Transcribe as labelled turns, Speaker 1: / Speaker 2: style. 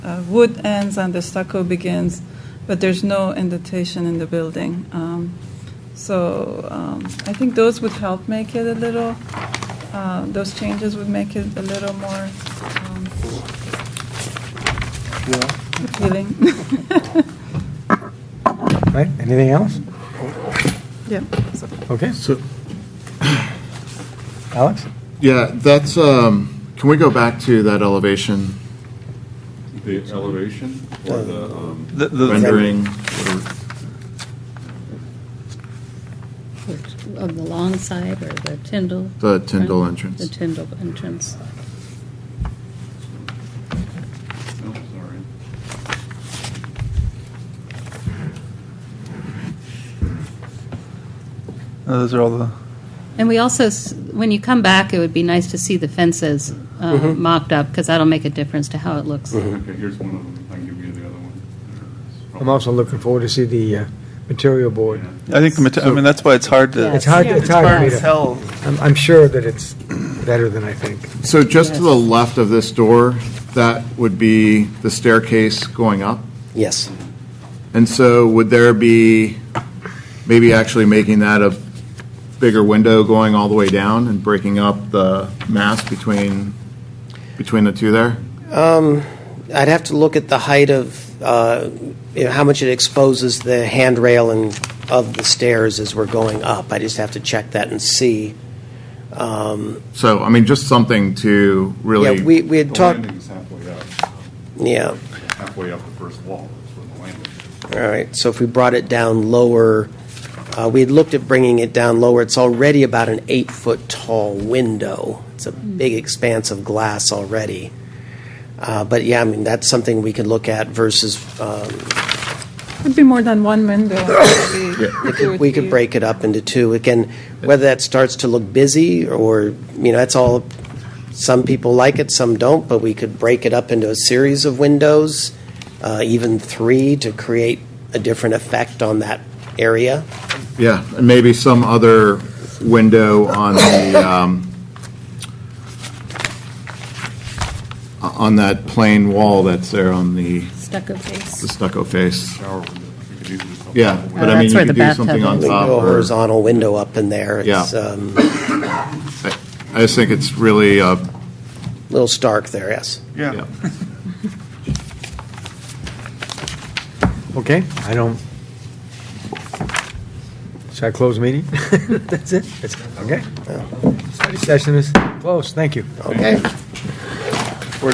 Speaker 1: uh, wood ends and the stucco begins, but there's no indentation in the building. Um, So um, I think those would help make it a little, uh, those changes would make it a little more um, appealing.
Speaker 2: Right, anything else?
Speaker 1: Yeah.
Speaker 2: Okay,
Speaker 3: So,
Speaker 2: Alex?
Speaker 3: yeah, that's, um, can we go back to that elevation
Speaker 4: The elevation or the
Speaker 2: Uh,
Speaker 4: um,
Speaker 5: The- the-
Speaker 3: rendering? whatever?
Speaker 6: Which- On the long side or the Tyndall?
Speaker 3: The Tyndall
Speaker 6: front?
Speaker 3: entrance.
Speaker 6: The Tyndall entrance.
Speaker 4: no, Oh, sorry.
Speaker 5: Uh, Those are all the,
Speaker 6: And we also, s- when you come back, it would be nice to see the fences uh, mocked up, because that'll make a difference to how it looks.
Speaker 4: Okay, here's one of them. I can give you the other one. It's
Speaker 2: I'm also looking forward to see the uh, material board.
Speaker 4: probably-
Speaker 5: I think, the mate- I mean, that's why it's hard to.
Speaker 2: It's hard, it's hard for me to,
Speaker 5: tell.
Speaker 2: I'm, I'm sure that it's better than I think.
Speaker 3: So just to the left of this door, that would be the staircase going up?
Speaker 7: Yes.
Speaker 3: And so would there be, maybe actually making that a bigger window going all the way down and breaking up the mass between, between the two there?
Speaker 7: Um, I'd have to look at the height of, uh, you know, how much it exposes the handrail and of the stairs as we're going up. I just have to check that and see. Um,
Speaker 3: So, I mean, just something to really.
Speaker 7: Yeah, we, we
Speaker 4: The
Speaker 7: had talked,
Speaker 4: landing's halfway up,
Speaker 7: yeah,
Speaker 4: halfway up the first wall, that's where the landing is.
Speaker 7: all right. So if we brought it down lower, uh, we had looked at bringing it down lower. It's already about an eight-foot tall window. It's a big expanse of glass already. Uh, But yeah, I mean, that's something we could look at versus, um,
Speaker 1: Would be more than one window. maybe, if it would
Speaker 7: We
Speaker 1: be-
Speaker 7: could break it up into two. Again, whether that starts to look busy or, you know, that's all, some people like it, some don't, but we could break it up into a series of windows, uh, even three, to create a different effect on that area.
Speaker 3: Yeah, and maybe some other window on the, um, on that plain wall that's there on the
Speaker 6: Stucco
Speaker 3: the
Speaker 6: face.
Speaker 3: stucco face.
Speaker 4: Shower window. We could easily put
Speaker 3: Yeah,
Speaker 4: that
Speaker 3: but
Speaker 6: Oh,
Speaker 3: I mean,
Speaker 6: that's
Speaker 3: you
Speaker 6: where
Speaker 3: could
Speaker 6: the
Speaker 3: do something
Speaker 6: bathtub
Speaker 3: on
Speaker 6: is.
Speaker 3: top.
Speaker 7: Go
Speaker 3: or-
Speaker 7: horizontal window up in there. It's
Speaker 3: Yeah.
Speaker 7: um,
Speaker 3: I just think it's really, uh,
Speaker 7: a little stark there, yes.
Speaker 3: yeah.
Speaker 2: Okay, I don't. Should I close meeting? That's it? That's- Okay. Study session is closed, thank you.
Speaker 7: Okay.